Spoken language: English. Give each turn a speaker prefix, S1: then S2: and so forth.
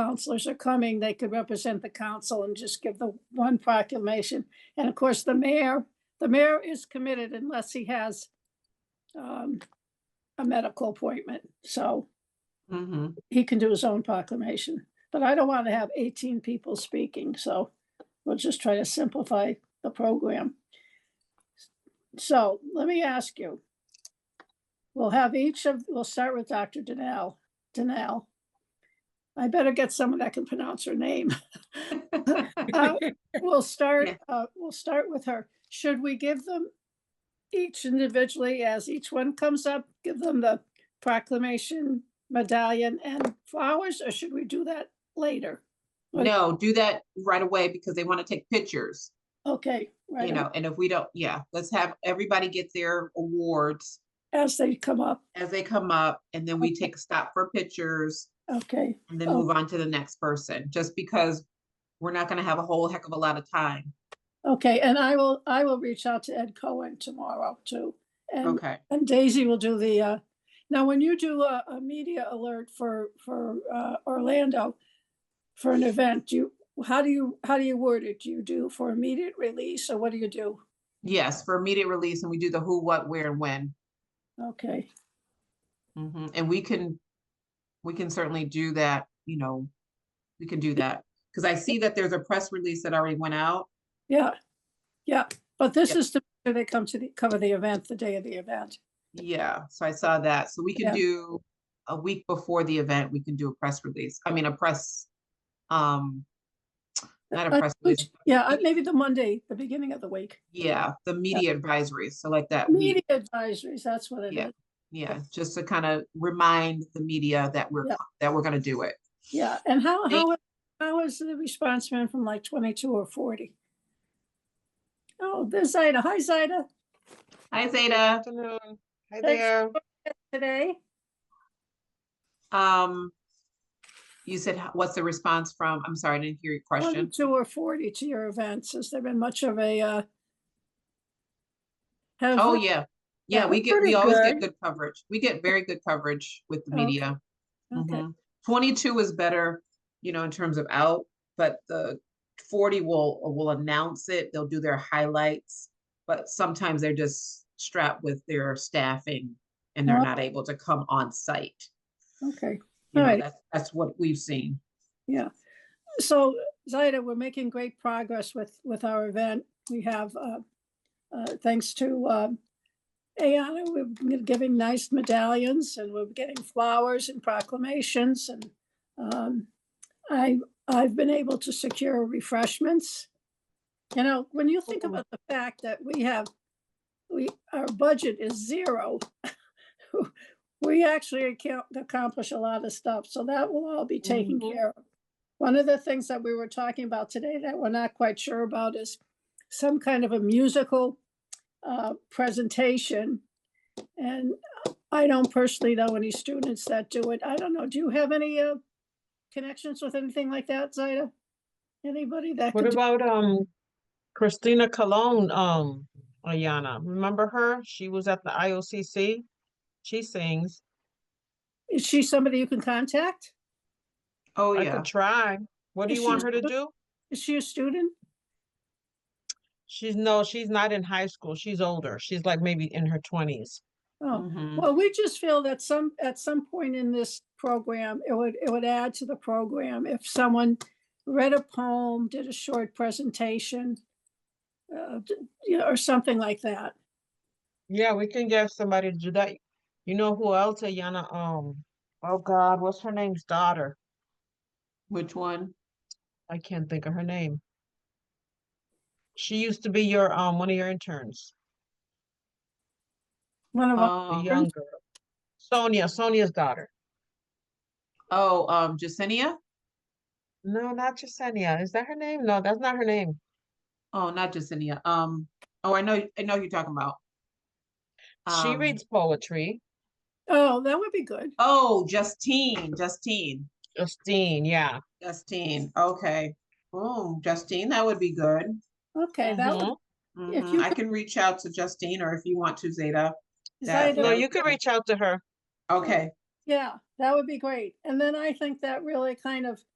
S1: counselors are coming, they could represent the council and just give the one proclamation. And of course, the mayor, the mayor is committed unless he has um, a medical appointment, so
S2: Mhm.
S1: he can do his own proclamation. But I don't want to have eighteen people speaking, so we'll just try to simplify the program. So let me ask you. We'll have each of, we'll start with Dr. Danel, Danel. I better get someone that can pronounce her name. Uh, We'll start,
S2: Yeah.
S1: uh, we'll start with her. Should we give them each individually as each one comes up, give them the proclamation, medallion and flowers, or should we do that later? What-
S2: No, do that right away because they want to take pictures,
S1: Okay,
S2: you
S1: right, on,
S2: know, and if we don't, yeah, let's have everybody get their awards
S1: as they come up,
S2: as they come up and then we take a stop for pictures
S1: okay,
S2: and then
S1: Oh.
S2: move on to the next person, just because we're not gonna have a whole heck of a lot of time.
S1: okay, and I will, I will reach out to Ed Cohen tomorrow too. And,
S2: Okay,
S1: and Daisy will do the, uh, now when you do a, a media alert for, for, uh, Orlando, for an event, do you, how do you, how do you word it? Do you do for immediate release or what do you do?
S2: yes, for immediate release and we do the who, what, where and when.
S1: Okay,
S2: Mhm, And we can, we can certainly do that, you know, we can do that. Cause I see that there's a press release that already went out.
S1: yeah, yeah, but this
S2: Yep.
S1: is to, they come to the, cover the event, the day of the event.
S2: Yeah, so I saw that. So we
S1: Yeah.
S2: can do a week before the event, we can do a press release. I mean, a press, um, not a
S1: Uh,
S2: press
S1: which-
S2: release,
S1: Yeah, uh, maybe the Monday, the beginning of the week.
S2: yeah, the media advisories. So like that week,
S1: Media advisories, that's what it
S2: Yeah.
S1: is.
S2: yeah, just to kind of remind the media that we're,
S1: Yeah.
S2: co- that we're gonna do it.
S1: Yeah, and how,
S2: They-
S1: how, how is the response been from like twenty-two or forty? Oh, there's Zaida. Hi, Zaida.
S2: Hi, Zeta.
S3: Afternoon. Hi
S1: Thanks.
S3: there.
S1: Today,
S2: Um, you said, h- what's the response from, I'm sorry, I
S1: Oh,
S2: didn't hear your question.
S1: twenty-two or forty to your events. Has there been much of a, uh? have
S2: Oh,
S1: we-
S2: yeah.
S1: Yeah,
S2: Yeah, we
S1: we're
S2: get,
S1: pretty
S2: we always
S1: good.
S2: get good coverage. We get very good coverage with the
S1: Okay.
S2: media.
S1: Okay,
S2: Mhm. Twenty-two is better, you know, in terms of out, but the forty will, will announce it, they'll do their highlights. But sometimes they're just strapped with their staffing and they're
S1: Oh.
S2: not able to come on site.
S1: okay.
S2: You know,
S1: Right.
S2: that's, that's what we've seen.
S1: So Zaida, we're making great progress with, with our event. We have, uh, uh, thanks to, uh, Ayana, we're gi- giving nice medallions and we're getting flowers and proclamations and, um, I, I've been able to secure refreshments. You know, when you think
S3: Mhm.
S1: about the fact that we have, we, our budget is zero. We actually can accomplish a lot of stuff, so that will all be taken
S2: Mhm.
S1: care of. One of the things that we were talking about today that we're not quite sure about is some kind of a musical uh, presentation. And I don't personally know any students that do it. I don't know, do you have any uh, connections with anything like that, Zaida? Anybody that
S3: What
S1: could, do-
S3: about um Christina Colon, um, Ayana? Remember her? She was at the IOCC. She sings.
S1: is she somebody you can contact?
S2: Oh,
S3: I
S2: yeah.
S3: could try. What do
S1: Is
S3: you
S1: she
S3: want her to
S1: still-
S3: do?
S1: Is she a student?
S3: She's no, she's not in high school. She's older. She's like maybe in her twenties. Mm-hmm.
S1: Oh,
S2: Mhm.
S1: Well, we just feel that some, at some point in this program, it would, it would add to the program if someone read a poem, did a short presentation, uh, d- you know, or something like that.
S3: Yeah, we can get somebody to do that. You know who else, Ayana? Um, oh God, what's her name's daughter?
S2: Which one?
S3: I can't think of her name. She used to be your um one of your interns.
S1: One of our,
S3: the
S2: Um,
S3: young girl. Sonia, Sonia's daughter.
S2: oh, um, Jacinia?
S3: No, not Yesenia. Is that her name? No, that's not her name.
S2: Oh, not Jacinia. Um, oh, I know, I know who you're talking about.
S3: She
S2: Um,
S3: reads poetry.
S1: oh, that would be good.
S2: Oh, Justine, Justine.
S3: Justine, yeah.
S2: Justine, okay. Oh, Justine, that would be good.
S1: Okay, that would,
S3: Mhm.
S1: If
S2: Mhm,
S1: you
S2: I can reach out to Justine or if you want to, Zeta.
S1: Zaida,
S2: that-
S3: Mm-hmm. No,
S2: would
S3: you
S2: be
S3: could
S2: good.
S3: reach out to her.
S2: Okay,
S1: yeah, that would be great. And then I think that really kind of